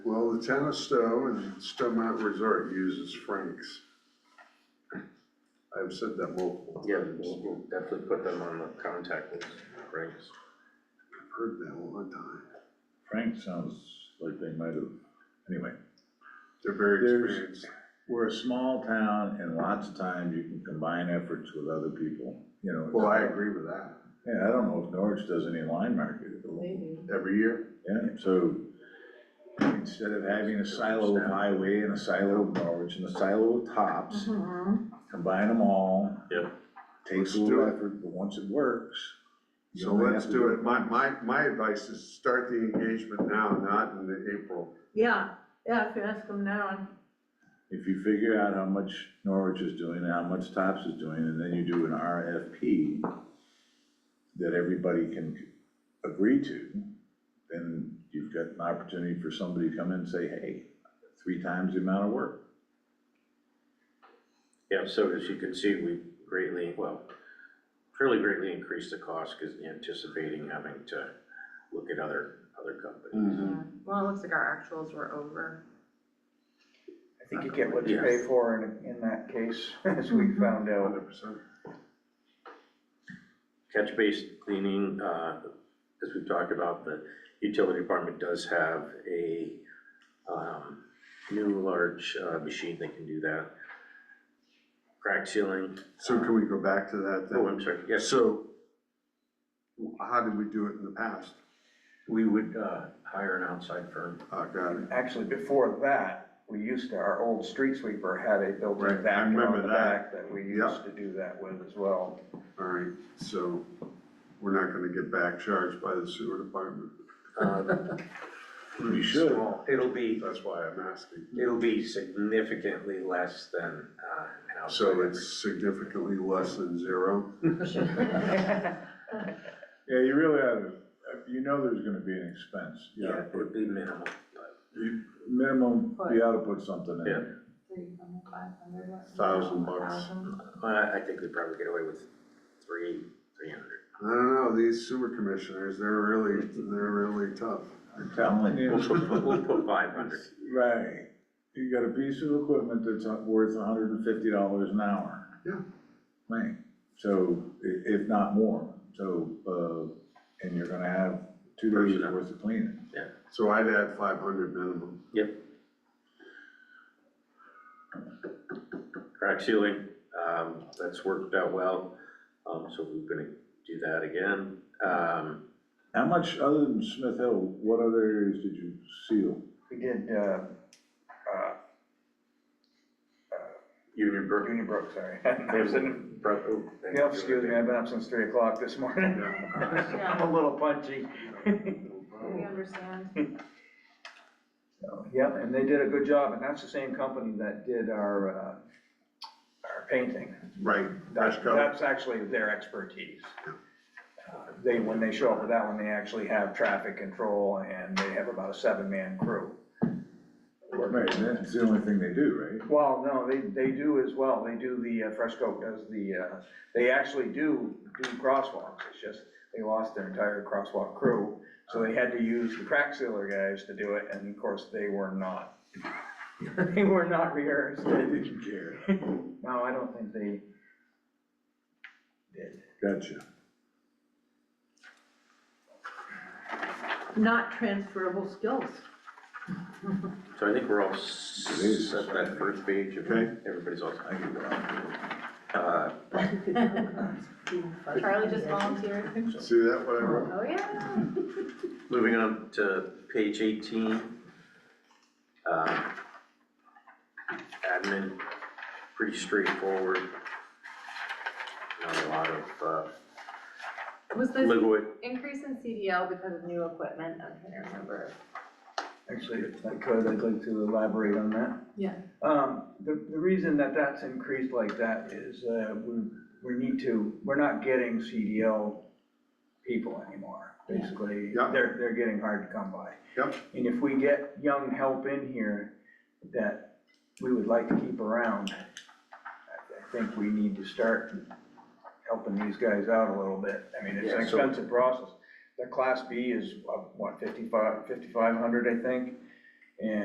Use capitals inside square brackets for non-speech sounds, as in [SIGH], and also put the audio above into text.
the town of Stowe and Stowe Mountain Resort uses Frank's. I've said that multiple Yeah, times. we'll we'll definitely put them on the contact list, right? I've heard that all the time. Frank sounds like they might have, anyway. They're very There's- experienced. We're a small town and lots of times you can combine efforts with other people, you know. Well, I agree with that. Yeah, I don't know if Norwich does any line market. Maybe. Every year, Yeah, so instead of having a silo of highway and a silo of Norwich and a silo of tops, Mm-hmm. combine them all. Yeah. Takes Let's a do little it. effort, but once it works. you so only have let's to- do it. My, my, my advice is start the engagement now, not in the April. Yeah, yeah, if you ask them now, If you figure out how much Norwich is doing, and how much Tops is doing, and then you do an RFP that everybody can agree to, then you've got an opportunity for somebody to come in and say, hey, three times the amount of work. Yeah, so as you can see, we greatly, well, fairly greatly increased the cost because anticipating having to look at other, other companies. Mm-hmm. yeah. well, it looks like our actuals were over. I think you get what you pay for in, in that case, [LAUGHS] as we found out. Hundred percent. Catch base cleaning, uh, as we've talked about, the utility department does have a, um, new large, uh, machine that can do that. Crack sealing, So can we go back to that then? oh, I'm sorry, yes, So, w- how did we do it in the past? we would, uh, hire an outside firm Oh, got it. Actually, before that, we used to, our old street sweeper had a Right, I built-in vacuum remember on the that. back that we Yeah. used to do that with as well. All right, so we're not gonna get back charged by the sewer department. [LAUGHS] Um, You should. It'll be, That's why I'm asking. it'll be significantly less than, uh, an outside. So it's significantly less than zero. Yeah, you really ought to, you know there's gonna be an expense. You Yeah, ought to it would put- be minimal. you- Minimum, you ought to put something in Yeah. there. Thousand bucks. I, I think we'd probably get away with three, three hundred. I don't know, these sewer commissioners, they're really, they're really tough. I'm telling you. [LAUGHS] We'll put, we'll put five hundred. Right, you got a piece of equipment that's worth hundred and fifty dollars an hour. Yeah. Right, so, i- if not more, so, uh, and you're gonna have two days Personnel. worth of cleaning. So I'd add five hundred minimum. Crack ceiling, um, that's worked out well, um, so we're gonna do that again. Um, How much, other than Smith Hill, what other areas did you seal? We did, uh, uh, Union Brook. Union Brook, sorry. [LAUGHS] Brook- oh, thank you. Yep, excuse me, I've been up since three o'clock this morning. [LAUGHS] I'm a little punchy. We understand. So, Yep, and they did a good job, and that's the same company that did our, uh, our painting. Right, That's, Dash coat. that's actually their expertise. Uh, They, when they show up with that one, they actually have traffic control and they have about a seven-man crew. Right, that's the only thing they do, right? Well, no, they, they do as well, they do the, uh, Fresco does the, uh, they actually do, do crosswalks, it's just, they lost their entire crosswalk crew, so they had to use the crack sealer guys to do it, and of course, they were not. [LAUGHS] They were not rehearsed. They didn't care. No, I don't think they did. Gotcha. Not transferable skills. So I think we're all set that first page, if Okay. everybody's all. I can go out. Uh, Charlie just volunteered. See that, what I wrote? Oh, yeah. Moving on to page eighteen. um, Admin, pretty straightforward. Not a lot of Was uh, this liquid, increase in CDL because of new equipment? I'm trying to remember. Actually, if I could, I'd like to elaborate on that. Yeah. Um, the, the reason that that's increased like that is, uh, we, we need to, we're not getting CDL people anymore, Yeah. basically. Yeah. They're, they're getting hard to come by. Yep. And if we get young help in here that we would like to keep around, I, I think we need to start helping these guys out a little bit. I mean, it's an Yeah, so- expensive process. The class B is, uh, what, fifty-five, fifty-five hundred, I think?